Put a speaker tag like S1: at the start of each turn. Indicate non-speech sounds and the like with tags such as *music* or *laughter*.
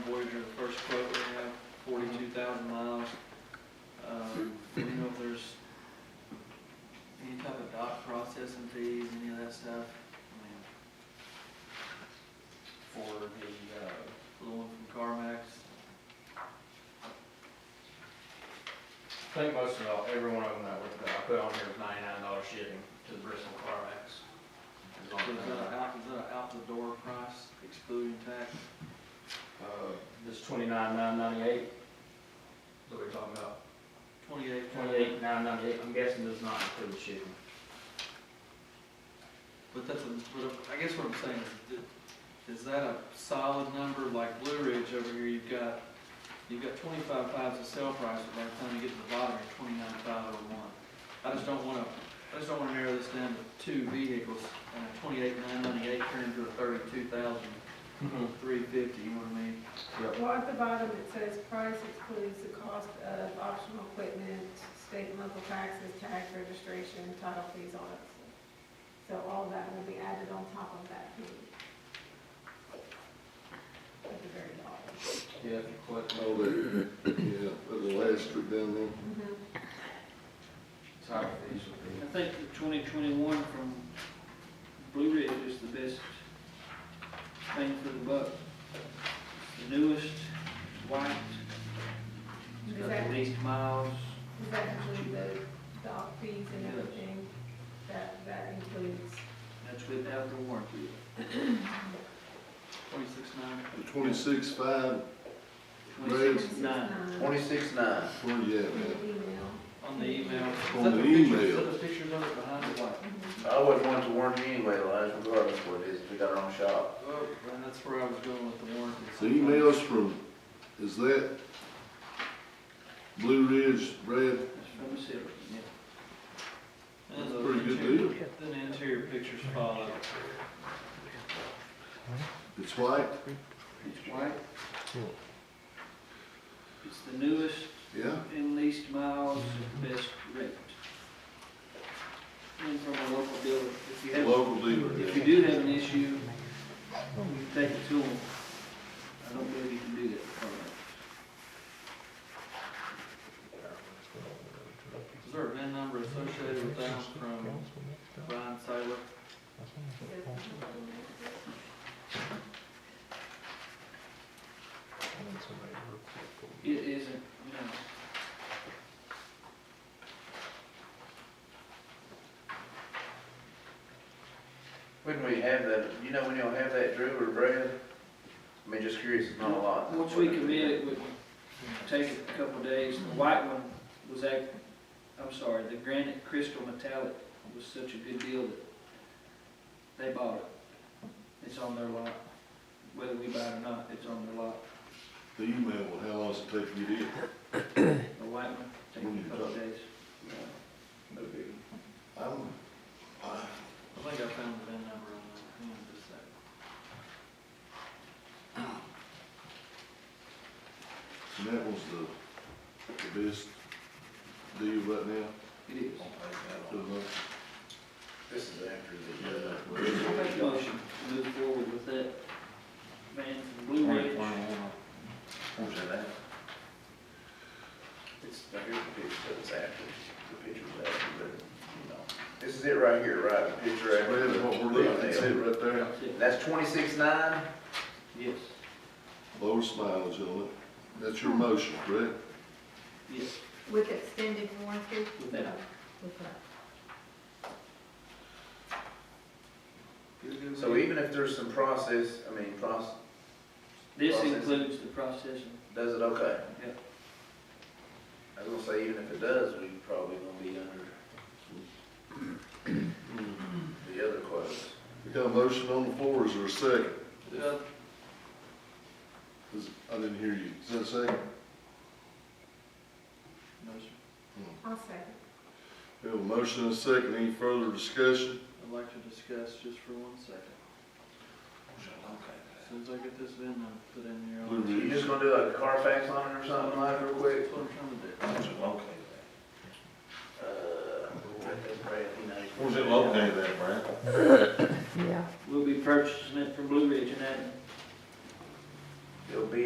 S1: Um,
S2: uh, I think most of all, every one of them that we- that I put on here is ninety-nine dollar shipping to the Bristol Carfax. Is
S1: Is
S2: on
S1: that
S2: there.
S1: a out, is that a out the door price excluding tax?
S2: Uh, This twenty-nine nine ninety-eight, that we're talking about,
S1: Twenty-eight, twenty-eight,
S2: twenty-eight nine ninety-eight, I'm guessing does not include shipping.
S1: but that's a, but I guess what I'm saying is, that- is that a solid number, like Blue Ridge over here, you've got, you've got twenty-five fives of sale price, but by the time you get to the bottom, you're twenty-nine five oh one. I just don't wanna, I just don't wanna narrow this down to two vehicles, and a twenty-eight nine ninety-eight turned into a thirty-two thousand
S2: Mm-hmm.
S1: three fifty, you know what I mean?
S3: Well, at the bottom, it says price excludes the cost of optional equipment, state and local taxes, tax registration, title fees, all that stuff. So all that will be added on top of that fee. At the very bottom.
S2: Yeah, if you click,
S4: Oh, the, yeah, but the last one down there.
S5: Mm-hmm.
S2: title fees would be.
S5: I think the twenty twenty-one from Blue Ridge is the best thing for the buck. The newest, white, it's
S3: Does
S5: got
S3: that,
S5: the least miles.
S3: does that include the dock fees and everything? That, that includes,
S5: That's without the *clears throat* warranty.
S1: Twenty-six nine,
S4: The twenty-six five,
S5: Twenty-six
S3: Yes.
S5: nine.
S6: Twenty-six nine.
S4: where you at,
S3: in
S4: man?
S3: the email.
S1: on the email. Is
S4: On
S1: that
S4: the
S1: picture- Is
S4: email.
S1: that the picture of it behind the white?
S3: Mm-hmm.
S6: I always wanted to warranty anyway, Elijah, regardless of what it is, if we got our own shop.
S1: Oh, and that's where I was going with the warranty.
S4: The emails from, is that Blue Ridge, Brad?
S5: That's from the city, yeah.
S1: And
S4: That's a
S1: those
S4: pretty good
S1: interior-
S4: deal.
S1: Then the interior pictures follow.
S4: It's white,
S5: It's white. It's the newest
S4: yeah?
S5: and least miles, and best rate. And from a local dealer, if you have.
S4: Local dealer,
S5: If you
S4: yeah.
S5: do have an issue, you can take it to them. I don't believe you can do that. for them.
S1: Is there a VIN number associated with that from Brian Taylor?
S5: It isn't, no.
S6: When we have that, you know, when y'all have that drill or Brad? I mean, just curious, it's not a lot.
S5: Once we commit it, would take a couple of days. The white one was act, I'm sorry, the granite crystal metallic was such a good deal that they bought it. It's on their lot. Whether we buy it or not, it's on their lot.
S4: The email, well, how long does it take you to get? it?
S5: The white one, take a couple of days.
S6: No big.
S4: I'm, I,
S1: I think I found the VIN number on that, hang on just a second.
S4: and that was the, the best deal right now.
S5: It is.
S4: to us.
S6: This is after
S4: Yeah,
S6: the.
S4: well,
S5: I'll make a motion to move forward with that van from Blue Ridge.
S6: Where's that at? It's, now here's the picture, so it's after, the picture's after, but, you know. This is it right here, right, the picture
S4: Brad,
S6: after.
S4: what we're looking, at, that's it right there.
S5: That's it.
S6: That's twenty-six nine?
S5: Yes,
S4: Lower mileage on it. That's your motion, correct?
S5: yes,
S3: With extended warranty?
S5: with that.
S3: With that.
S1: You're good with
S6: So
S1: it?
S6: even if there's some process, I mean, process,
S5: This
S6: Processing.
S5: includes the processing.
S6: does it okay?
S5: Yep.
S6: I was gonna say, even if it does, we probably gonna be under the other quotes.
S4: We got a motion on the floor, is there a second?
S1: Yeah,
S4: Is- I didn't hear you, is that a second?
S1: no, sir.
S3: I'll second.
S4: We have a motion and a second, any further discussion?
S1: I'd like to discuss just for one second.
S6: Okay.
S1: As soon as I get this VIN number put in here. I'll-
S4: Blue
S6: You
S4: Ridge,
S6: just gonna do like a Carfax on it or something like real quick?
S1: That's what I'm trying to do.
S6: Okay. Uh,
S4: where's it located at, Brad?
S5: We'll be purchasing it from Blue Ridge and that.
S6: It'll be